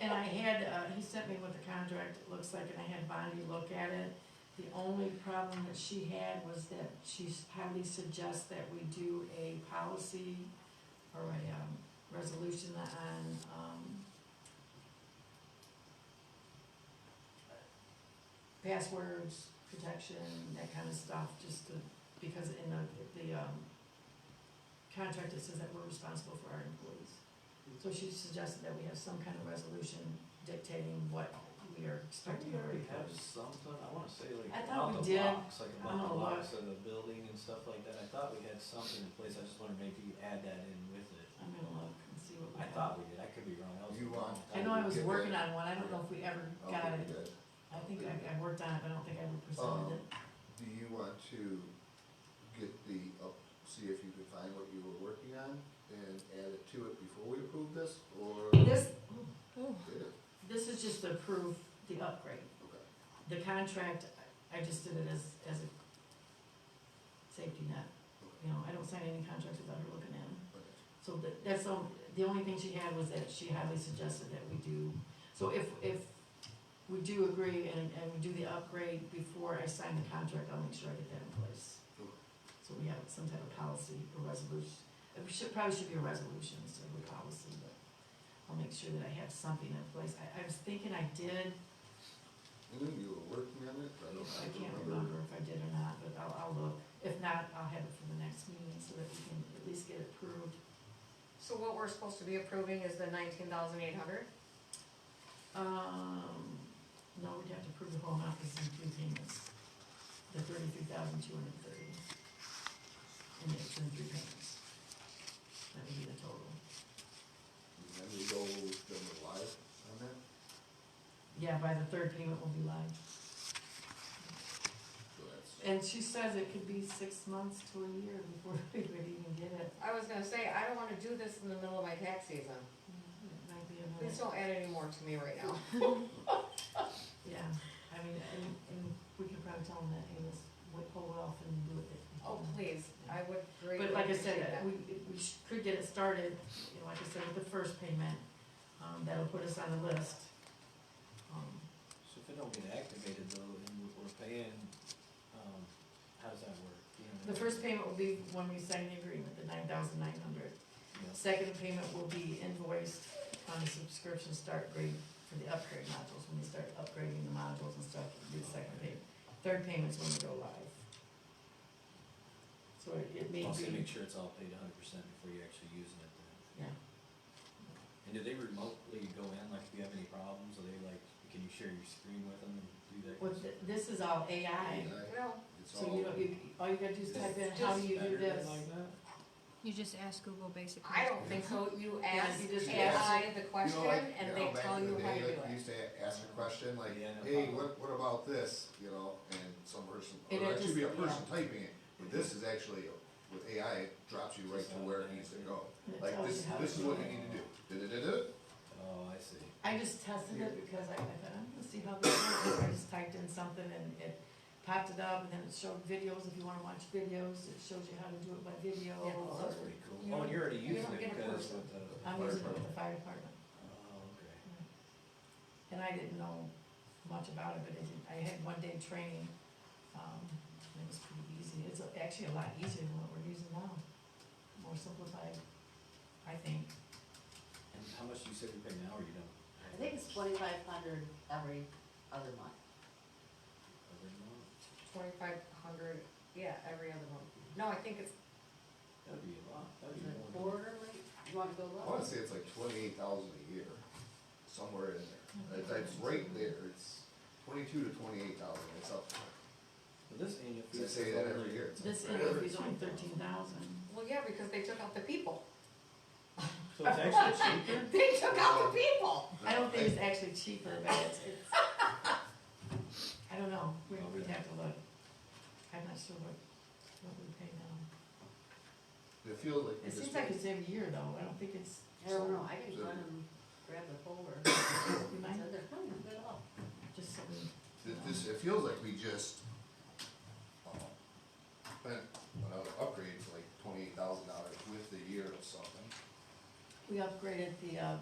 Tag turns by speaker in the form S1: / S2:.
S1: had, uh, he sent me what the contract looks like, and I had Bonnie look at it. The only problem that she had was that she highly suggests that we do a policy or a, um, resolution on, um, passwords, protection, that kind of stuff, just to, because in the, the, um, contract, it says that we're responsible for our employees. So she suggested that we have some kind of resolution dictating what we are
S2: Don't
S1: expecting of
S2: we
S1: our
S2: already have
S1: employees.
S2: something, I wanna say like
S1: I thought
S2: about
S1: we
S2: the
S1: did.
S2: blocks, like
S1: I'm
S2: about
S1: gonna
S2: the
S1: look.
S2: blocks of the building and stuff like that, I thought we had something in place, I just wonder maybe you add that in with it.
S1: I'm gonna look and see what we
S2: I
S1: have.
S2: thought we did, I could be wrong, that was.
S3: You want-
S1: I know I was
S3: Did we?
S1: working on one, I don't know if we ever got
S3: Okay,
S1: it.
S3: good.
S1: I think I, I worked on it, but I don't think I ever presented it.
S2: Oh.
S3: Do you want to get the, up- see if you can find what you were working on and add it to it before we approve this, or?
S1: This,
S3: Did it?
S1: this is just to approve the upgrade.
S3: Okay.
S1: The contract, I just did it as, as a safety net. You know, I don't sign any contracts without her looking at them.
S3: Okay.
S1: So that, that's the, on- the only thing she had was that she highly suggested that we do, so if, if we do agree and, and we do the upgrade before I sign the contract, I'll make sure I get that in place.
S3: Okay.
S1: So we have some type of policy or resolution, it should, probably should be a resolution instead of a policy, but I'll make sure that I have something in place. I, I was thinking I did,
S3: And then you were working on it, but I don't.
S1: I can't remember if I did or not, but I'll, I'll look. If not, I'll have it for the next meeting so that we can at least get it approved.
S4: So what we're supposed to be approving is the nineteen thousand eight hundred?
S1: Um, no, we'd have to prove the whole amount because in three payments, the thirty-three thousand two hundred and thirty. And it's in three payments. That would be the total.
S3: And then we go with them live on that,
S1: Yeah, by the third payment will be live.
S3: so that's,
S1: And she says it could be six months to a year before we would even get it.
S4: I was gonna say, I don't wanna do this in the middle of my tax season.
S1: It might be a minute.
S4: Please don't add any more to me right now.
S1: Yeah, I mean, and, and we could probably tell them that, hey, let's wait, hold off and do it.
S4: Oh, please, I would greatly
S1: But like I
S4: appreciate
S1: said,
S4: that.
S1: we, we sh- could get it started, you know, like I said, with the first payment, um, that'll put us on the list. Um,
S2: So if it don't get activated though, and we're- we're paying, um, how does that work? You know
S1: The
S2: what I mean?
S1: first payment will be when we sign the agreement, the nine thousand nine hundred.
S2: Yeah.
S1: Second payment will be invoiced on the subscription start grade for the upgrade modules, when we start upgrading the modules and stuff, it'll be the second payment. Third payment's when we go live. So it it may
S2: Also
S1: be,
S2: make sure it's all paid hundred percent before you actually using it then.
S1: yeah,
S2: And do they remotely go in, like if you have any problems, are they like, can you share your screen with them and do that? kind
S1: Well,
S2: of
S1: th-
S2: stuff?
S1: this is all AI,
S3: Yeah,
S4: Well,
S3: it's
S1: so you
S3: all,
S1: don't, you, all you gotta do is type in, how do you do
S2: Better than
S1: this?
S2: like that?
S5: You just ask Google basically.
S4: I don't think so, you
S1: Yeah,
S4: ask
S1: you just
S4: AI
S3: You
S4: the question
S3: know, like, you
S4: and
S3: know,
S4: they
S3: back
S4: tell
S3: in the
S4: you how
S3: day,
S4: to do
S3: like,
S4: it.
S3: used to ask a question like,
S2: Yeah, no
S3: hey,
S2: problem.
S3: what, what about this, you know, and some person,
S1: And
S3: or
S1: it
S3: it should be a
S1: just- yeah.
S3: person typing it, but this is actually, with AI, it drops you right to where it needs to go.
S1: And it
S3: Like,
S1: tells
S3: this,
S1: you how
S3: this
S1: to
S3: is
S1: do
S3: what
S1: it.
S3: you need to do, da-da-da-da,
S2: Oh, I see.
S1: I just tested it because I, I thought, I'm gonna see how this works, I just typed in something and it popped it up, and then it showed videos, if you wanna watch videos, it shows you how to do it by video.
S4: Yeah.
S2: Oh,
S1: or-
S2: that's pretty cool.
S4: You
S2: Oh,
S4: don't-
S2: and you're already
S4: you
S2: using
S4: don't
S2: it
S4: get a
S2: because
S4: person.
S2: with the.
S1: I'm using it with the fire department,
S2: Oh, okay.
S1: and I didn't know much about it, but I did, I had one day training, um, and it was pretty easy, it's actually a lot easier than what we're using now. More simplified, I think.
S2: And how much do you say you pay now or you don't?
S6: I think it's twenty-five hundred every other month.
S2: Every month?
S4: Twenty-five hundred, yeah, every other month. No, I think it's,
S2: That'd be a lot, that'd
S6: Is
S2: be
S6: it
S2: more. than-
S6: quarterly? You wanna go
S3: I
S6: low?
S3: wanna say it's like twenty-eight thousand a year, somewhere in there, It's- it's right there, it's twenty-two to twenty-eight thousand, it's up there.
S2: But this annual fee.
S3: They say that every year. It's
S1: This
S3: like-
S1: interview is only thirteen thousand.
S4: well, yeah, because they took out the people.
S2: So it's actually cheaper?
S4: They took out the people.
S1: I don't
S3: Uh,
S1: think it's actually cheaper, but it's, it's, I don't know, we, we'd have to look. I'm not sure what, what we pay now.
S3: It feels like. we
S1: It
S3: just-
S1: seems like it's every year though, I don't think it's,
S6: I don't know, I can run and grab the folder.
S1: you
S6: It's
S1: might,
S6: in there. Hmm, good luck.
S1: just something, um,
S3: Th- This, it feels like we just, um, spent another upgrade for like twenty-eight thousand dollars with the year or something.
S1: we upgraded the, uh,